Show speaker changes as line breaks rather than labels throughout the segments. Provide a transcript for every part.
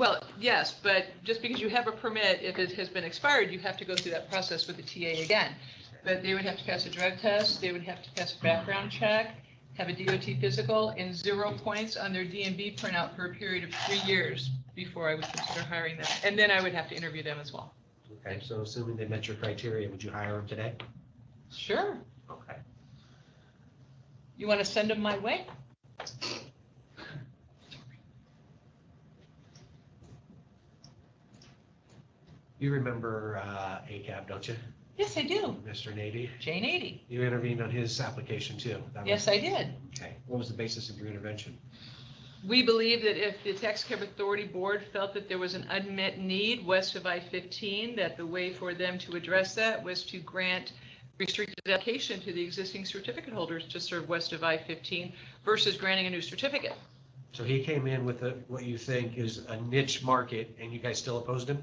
Well, yes, but just because you have a permit, if it has been expired, you have to go through that process with the TA again. But they would have to pass a drug test, they would have to pass a background check, have a DOT physical, and zero points on their DMV printout for a period of three years before I would consider hiring them. And then I would have to interview them as well.
Okay, so assuming they met your criteria, would you hire them today?
Sure.
Okay.
You want to send them my way?
You remember uh, ACAB, don't you?
Yes, I do.
Mr. Nady?
Jane 80.
You intervened on his application too. That was-
Yes, I did.
Okay, what was the basis of your intervention?
We believe that if the Tax Cap Authority Board felt that there was an unmet need west of I-15, that the way for them to address that was to grant restricted application to the existing certificate holders to serve west of I-15 versus granting a new certificate.
So he came in with a- what you think is a niche market and you guys still opposed him?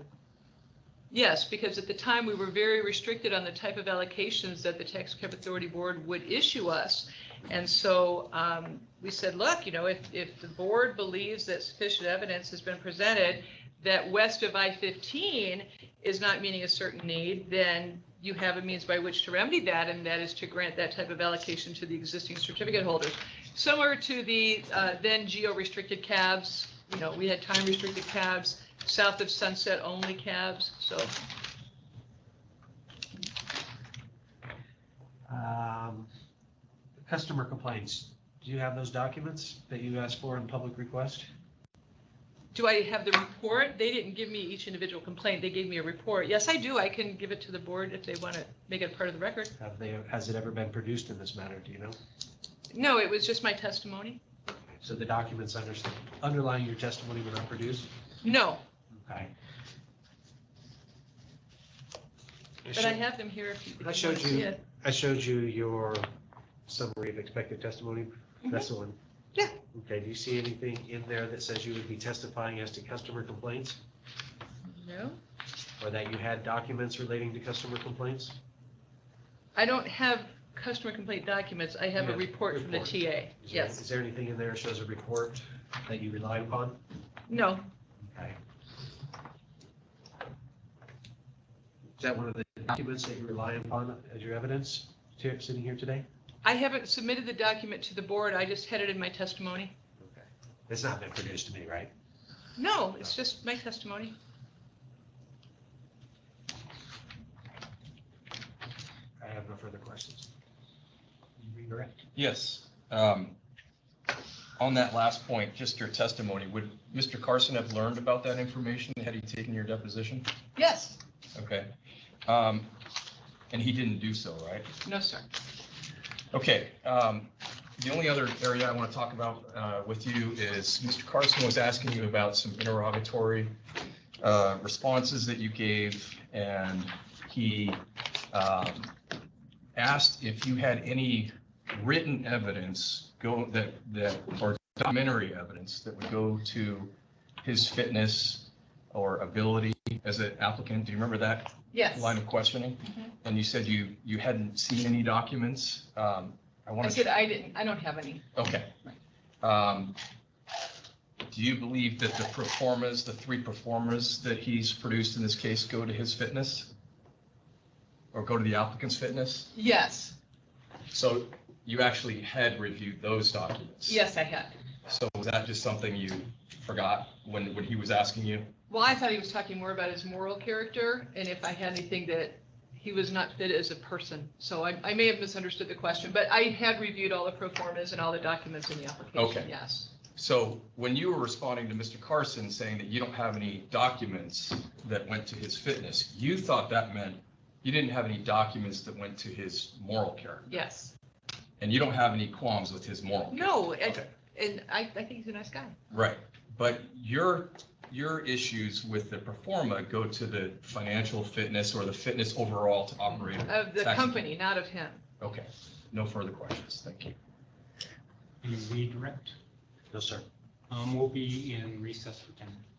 Yes, because at the time, we were very restricted on the type of allocations that the Tax Cap Authority Board would issue us. And so um, we said, look, you know, if, if the board believes that sufficient evidence has been presented that west of I-15 is not meeting a certain need, then you have a means by which to remedy that, and that is to grant that type of allocation to the existing certificate holders. Similar to the uh, then geo-restricted cabs, you know, we had time-restricted cabs, south of Sunset only cabs, so.
Um, Customer complaints, do you have those documents that you asked for in public request?
Do I have the report? They didn't give me each individual complaint. They gave me a report. Yes, I do. I can give it to the board if they want to make it part of the record.
Have they, has it ever been produced in this matter, do you know?
No, it was just my testimony.
So the documents underst- underlying your testimony were not produced?
No,
Okay.
but I have them here if you. if
I
you
showed
want to see
you.
it.
I showed you your summary of expected testimony. That's the one.
Mm-hmm. Yeah.
Okay, do you see anything in there that says you would be testifying as to customer complaints?
No,
Or that you had documents relating to customer complaints?
I don't have customer complaint documents. I have a
Yeah,
report from the
report.
TA.
Is there-
Yes.
Is there anything in there that shows a report that you relied upon?
No,
Okay. Is that one of the documents that you rely upon as your evidence, here- sitting here today?
I haven't submitted the document to the board. I just had it in my testimony.
Okay. It's not been produced to me, right?
No, it's just my testimony.
I have no further questions. You Redirect.
Yes. um, On that last point, just your testimony, would Mr. Carson have learned about that information had he taken your deposition?
Yes.
Okay. Um, And he didn't do so, right?
No, sir.
Okay, um, the only other area I want to talk about uh, with you is, Mr. Carson was asking you about some interrogatory uh, responses that you gave, and he um, asked if you had any written evidence go, that, that, or documentary evidence that would go to his fitness or ability as an applicant. Do you remember that
Yes.
line of questioning,
Mhm.
and you said you, you hadn't seen any documents. Um, I
I
want
said
to,
I didn't, I don't have any.
okay. Um, Do you believe that the performers, the three performers that he's produced in this case go to his fitness? Or go to the applicant's fitness?
Yes,
So you actually had reviewed those documents?
yes, I had.
So was that just something you forgot when, when he was asking you?
Well, I thought he was talking more about his moral character and if I had anything that he was not fit as a person. So I, I may have misunderstood the question, but I had reviewed all the pro formas and all the documents in the application,
Okay.
yes.
So when you were responding to Mr. Carson saying that you don't have any documents that went to his fitness, you thought that meant you didn't have any documents that went to his moral character,
Yes.
and you don't have any qualms with his moral.
No, and,
Okay.
and I, I think he's a nice guy.
Right, but your, your issues with the performa go to the financial fitness or the fitness overall to operate.
Of the
Thank you.
company, not of him.
Okay, no further questions, thank you.
Any redirect?
No, sir.
Um, We'll be in recess for 10 minutes.